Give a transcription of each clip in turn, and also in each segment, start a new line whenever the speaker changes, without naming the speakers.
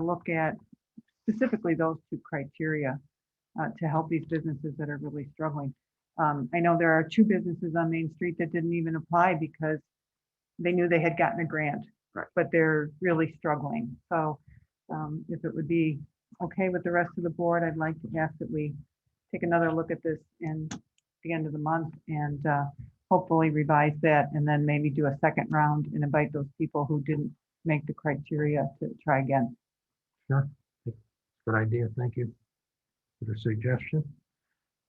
look at specifically those two criteria uh, to help these businesses that are really struggling. Um, I know there are two businesses on Main Street that didn't even apply because they knew they had gotten a grant.
Right.
But they're really struggling. So um, if it would be okay with the rest of the board, I'd like to ask that we take another look at this in the end of the month and uh, hopefully revise that and then maybe do a second round and invite those people who didn't make the criteria to try again.
Good idea. Thank you for the suggestion.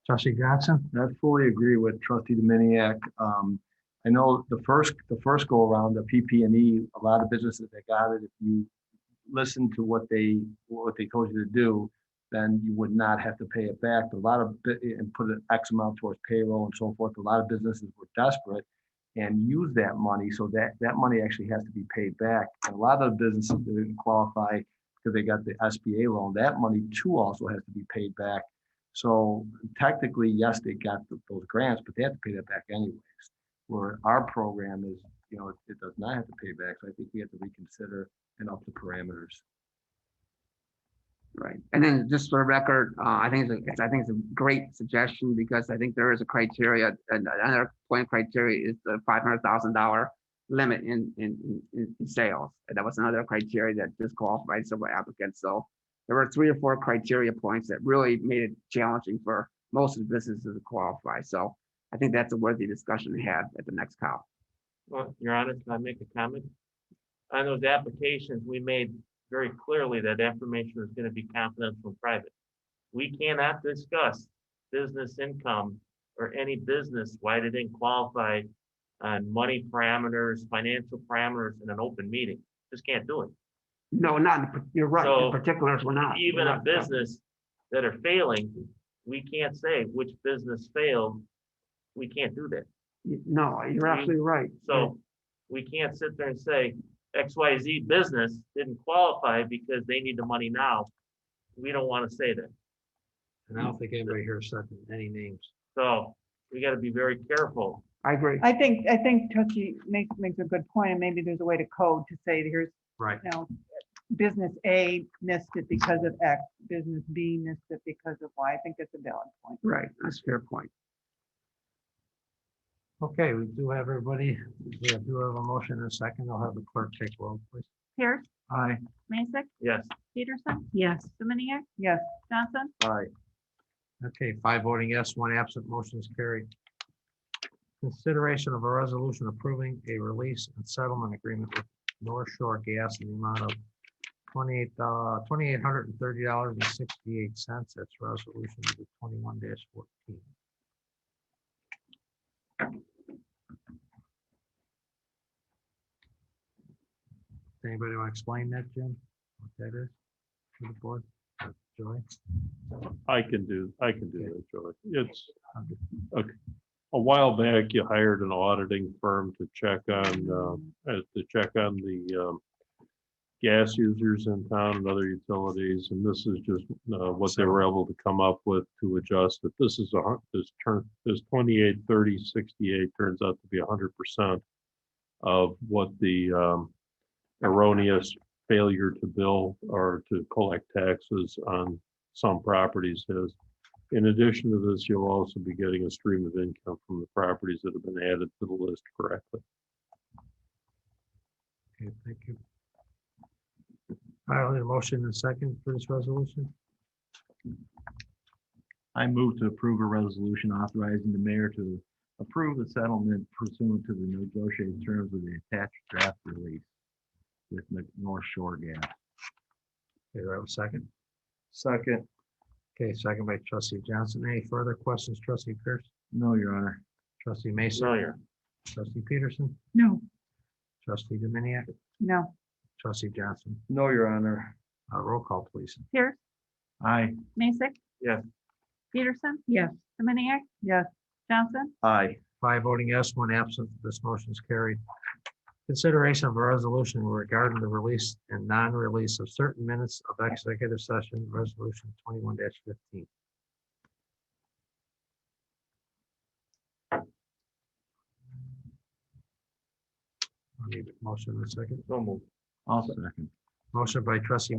Trustee Johnson?
I fully agree with trustee Dominiac. Um, I know the first, the first go around, the PP and E, a lot of businesses that got it, if you listen to what they, what they told you to do, then you would not have to pay it back. But A lot of, bu- and put an X amount towards payroll and so forth. A lot of businesses were desperate and use that money. So that, that money actually has to be paid back. And a lot of businesses that didn't qualify because they got the SBA loan. That money too also has to be paid back. So technically, yes, they got th- those grants, but they have to pay that back anyways. Where our program is, you know, it- it does not have to pay back. So I think we have to reconsider and up the parameters.
Right, and then just for the record, uh, I think, it's a- it's- I think it's a great suggestion because I think there is a criteria, and another point criteria is the five hundred thousand dollar limit in, in, in- in, in sales. And that was another criteria that disqualified several applicants, so there were three or four criteria points that really made it challenging for most of the businesses to qualify, so I think that's a worthy discussion to have at the next call.
Well, Your Honor, can I make a comment? On those applications, we made very clearly that information is gonna be confidential and private. We cannot discuss business income or any business, why they didn't qualify on money parameters, financial parameters in an open meeting. Just can't do it.
No, not, in par- you're right,
So,
in particulars, we're not. we're
Even a
not-
business that are failing, we can't say which business failed. We can't do that.
No, you're absolutely right.
So we can't sit there and say XYZ business didn't qualify because they need the money now. We don't want to say that.
And I don't think anybody here said any names.
So we got to be very careful.
I agree.
I think, I think Trustee makes, makes a good point, and maybe there's a way to code to say, here's,
Right.
you know, business A missed it because of X, business B missed it because of Y. I think that's a valid point.
Right, that's a fair point.
Okay, we do have everybody. We do have a motion and a second. I'll have the clerk take roll, please.
Pierce,
Aye.
Mason,
Yes,
Peterson. Yes. Dominiac,
Yes,
Johnson,
All right,
Okay, five voting yes, one absent, motion is carried. Consideration of a resolution approving a release and settlement agreement with North Shore Gas in the amount of twenty-eight, uh, twenty-eight hundred and thirty dollars and sixty-eight cents. That's resolution number twenty-one fourteen. Anybody want to explain that, Jim? What that is? To the board, or Joy?
I can do, I can do that, Joey. It's,
Okay.
okay. A while back, you hired an auditing firm to check on, um, uh, to check on the, um, gas users in town and other utilities, and this is just, uh, what they were able to come up with to adjust that this is a, hun- this turn, this twenty-eight, thirty, sixty-eight turns out to be hundred percent of what the, um, erroneous failure to bill or to collect taxes on some properties has. In addition to this, you'll also be getting a stream of income from the properties that have been added to the list correctly.
Okay, thank you. I'll need a motion and a second for this resolution.
I move to approve a resolution authorizing the mayor to approve the settlement pursuant to the negotiated terms of the attached draft release with North Shore Gas.
Okay, do I have a second?
Second.
Okay, second by trustee Johnson. Any further questions, trustee Pierce,
No, Your Honor.
trustee Mason,
familiar.
trustee Peterson,
no,
trustee Dominiac,
no,
trustee Johnson.
No, Your Honor.
Uh, roll call, please.
Pierce,
Aye.
Mason.
Yes.
Peterson. Yes. Dominiac,
yes,
Johnson,
Aye.
Five voting yes, one absent. This motion is carried. Consideration of a resolution regarding the release and non-release of certain minutes of executive session, resolution twenty-one fifteen. I need a motion in a second.
So moved.
I'll second.
Motion by trustee